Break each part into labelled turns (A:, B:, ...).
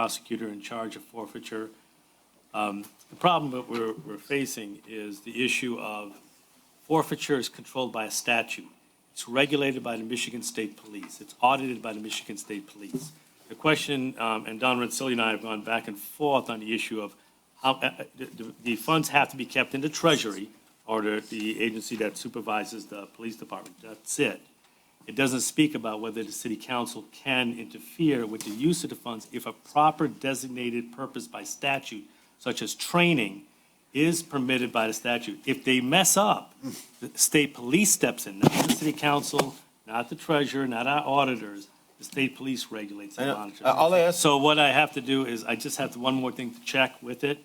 A: prosecutor in charge of forfeiture. Um, The problem that we're, we're facing is the issue of forfeiture is controlled by a statute. It's regulated by the Michigan State Police. It's audited by the Michigan State Police. The question, um, and Don Rensselaer and I have gone back and forth on the issue of how, uh, uh, the- the- the funds have to be kept in the Treasury or the, the agency that supervises the police department. That's it. It doesn't speak about whether the city council can interfere with the use of the funds if a proper designated purpose by statute, such as training, is permitted by the statute. If they mess up, the state police steps in, not the city council, not the treasurer, not our auditors. The state police regulates
B: I
A: and
B: know.
A: monitors.
B: Uh, all I ask-
A: So what I have to do is, I just have to- one more thing to check with it.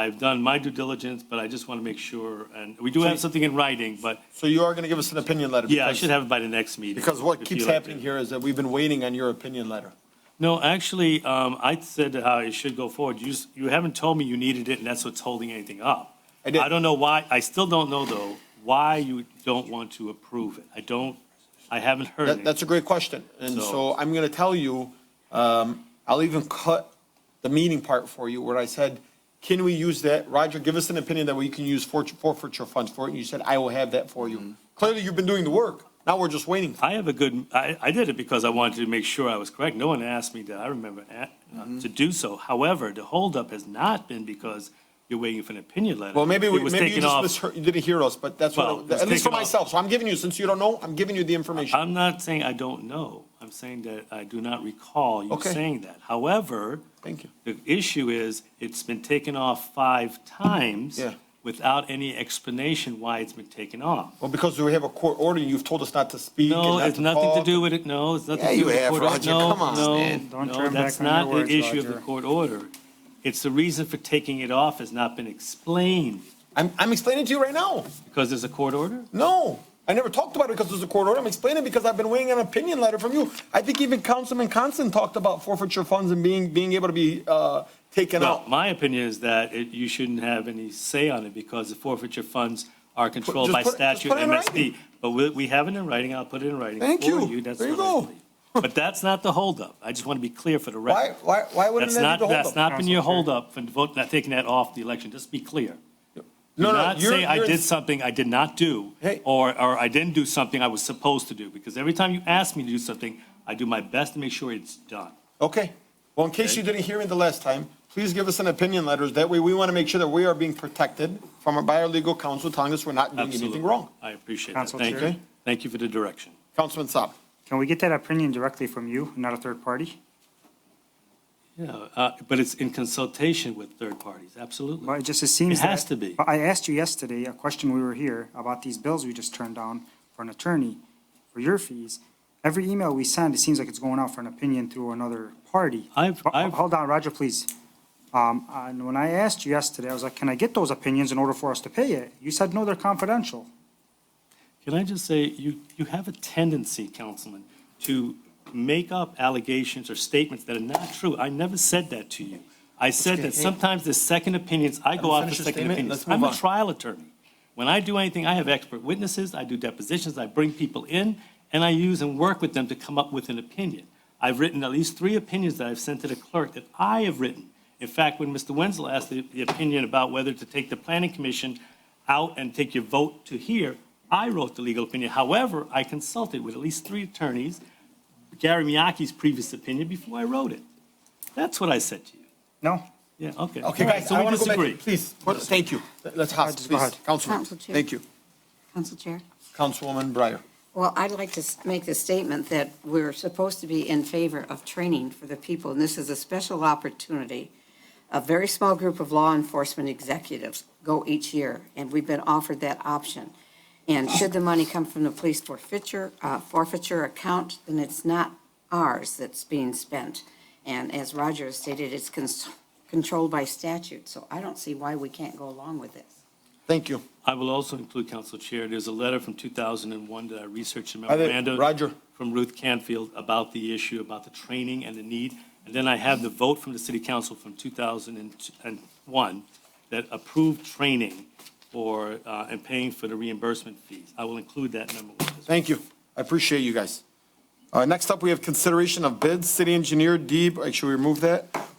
A: I've done my due diligence, but I just want to make sure, and we do have something in writing, but
B: So you are going to give us an opinion letter?
A: yeah, I
B: because-
A: should have it by the next meeting.
B: Because
A: if
B: what
A: you
B: keeps
A: like
B: happening
A: to.
B: here is that we've been waiting on your opinion letter.
A: No, actually, um, I said how it should go forward. You, s- you haven't told me you needed it, and that's what's holding anything up.
B: I did.
A: I don't know why, I still don't know, though, why you don't want to approve it. I don't, I haven't heard
B: That,
A: anything.
B: that's a great question. And
A: So-
B: so I'm going to tell you, um, I'll even cut the meeting part for you where I said, can we use that? Roger, give us an opinion that we can use for- forfeiture funds for it. And you said, I will have that for you. Clearly, you've been doing the work. Now we're just waiting.
A: Mm-hmm. I have a good, I, I did it because I wanted to make sure I was correct. No one asked me that, I remember, a-
B: Mm-hmm.
A: uh, to do so. However, the holdup has not been because you're waiting for an opinion letter.
B: Well, maybe,
A: It
B: we-
A: was
B: maybe you
A: taken
B: just
A: off-
B: misheard, you didn't hear us, but that's
A: Well, it
B: what,
A: was
B: at least for
A: taken off.
B: myself. So I'm giving you, since you don't know, I'm giving you the information.
A: I'm not saying I don't know. I'm saying that I do not recall you
B: Okay.
A: saying that. However,
B: Thank you.
A: the issue is it's been taken off five times
B: Yeah.
A: without any explanation why it's been taken off.
B: Well, because we have a court order, you've told us not to speak and
A: No,
B: not
A: it's
B: to
A: nothing to
B: talk.
A: do with it. No, it's nothing
B: Yeah,
A: to do
B: you
A: with the
B: have,
A: court order.
B: Roger.
A: No,
B: Come on,
A: no,
B: man.
C: Don't
A: no,
C: turn
A: that's
C: back on
A: not
C: your
A: the
C: words,
A: issue of the
C: Roger.
A: court order. It's the reason for taking it off has not been explained
B: I'm, I'm explaining to you right now.
A: because there's a court order?
B: No, I never talked about it because there's a court order. I'm explaining because I've been waiting on an opinion letter from you. I think even Councilman Constant talked about forfeiture funds and being, being able to be, uh, taken
A: Well,
B: out.
A: my opinion is that it, you shouldn't have any say on it because the forfeiture funds are controlled
B: just
A: by
B: put it- just
A: statute
B: put it in
A: and MSD. But we, we have it in writing, I'll put it in writing.
B: Thank
A: for
B: you.
A: That's
B: There you
A: what I
B: go.
A: believe. But that's not the holdup. I just want to be clear for the
B: Why,
A: record.
B: why, why wouldn't
A: That's
B: that
A: not,
B: be the
A: that's
B: holdup?
A: not been your holdup for vote, not taking that off the election, just be clear.
B: No,
A: Do
B: no,
A: not
B: you're-
A: say I
B: you're-
A: did something I did not do,
B: Hey.
A: or, or I didn't do something I was supposed to do, because every time you ask me to do something, I do my best to make sure it's done.
B: Okay. Well, in case you didn't hear me the last time, please give us an opinion letters. That way we want to make sure that we are being protected from, our- by our legal counsel telling us we're not doing
A: Absolutely.
B: anything wrong.
A: I appreciate that.
C: Council
A: Thank
C: Chair?
A: you. Thank you for the direction.
B: Councilman Saab.
C: Can we get that opinion directly from you, not a third party?
A: Yeah, uh, but it's in consultation with third parties, absolutely.
C: Well, it just, it seems
A: It
C: that.
A: has to be.
C: But I asked you yesterday, a question we were here, about these bills we just turned down for an attorney, for your fees. Every email we send, it seems like it's going out for an opinion through another party.
A: I've-
C: Ho- ho-
A: I've-
C: Hold on, Roger, please. Um, and when I asked you yesterday, I was like, can I get those opinions in order for us to pay it? You said, no, they're confidential.
A: Can I just say, you, you have a tendency, Councilman, to make up allegations or statements that are not true. I never said that to you. I said that
B: hey.
A: sometimes the second opinions, I go
B: me
A: off the
B: finish your
A: second
B: statement,
A: opinions.
B: let's
A: I'm
B: move
A: a
B: on.
A: trial attorney. When I do anything, I have expert witnesses, I do depositions, I bring people in, and I use and work with them to come up with an opinion. I've written at least three opinions that I've sent to the clerk that I have written. In fact, when Mr. Wenzel asked the, the opinion about whether to take the planning commission out and take your vote to here, I wrote the legal opinion. However, I consulted with at least three attorneys, Gary Miyake's previous opinion before I wrote it. That's what I said to you.
C: No?
A: Yeah, okay.
B: Okay,
A: All right,
B: guys,
A: so
B: I
A: we
B: want to go back.
A: disagree.
B: Please, what- thank you. Let's hop,
C: Just go
B: please.
C: ahead.
B: Councilman,
D: Council chair.
B: thank you.
D: Council Chair?
B: Councilwoman Breyer.
D: Well, I'd like to s- make the statement that we're supposed to be in favor of training for the people, and this is a special opportunity. A very small group of law enforcement executives go each year, and we've been offered that option. And should the money come from the police forfeiture, uh, forfeiture account, then it's not ours that's being spent. And as Roger stated, it's cons- controlled by statute, so I don't see why we can't go along with this.
B: Thank you.
A: I will also include, Council Chair, there's a letter from 2001 that I researched in
B: think-
A: memorandum.
B: Roger.
A: From Ruth Canfield about the issue, about the training and the need. And then I have the vote from the City Council from 2001 that approved training for, uh, and paying for the reimbursement fees. I will include that memo. with this.
B: Thank you. I appreciate you guys. Uh, Next up, we have consideration of bids, city engineer, Deeb, should we remove that?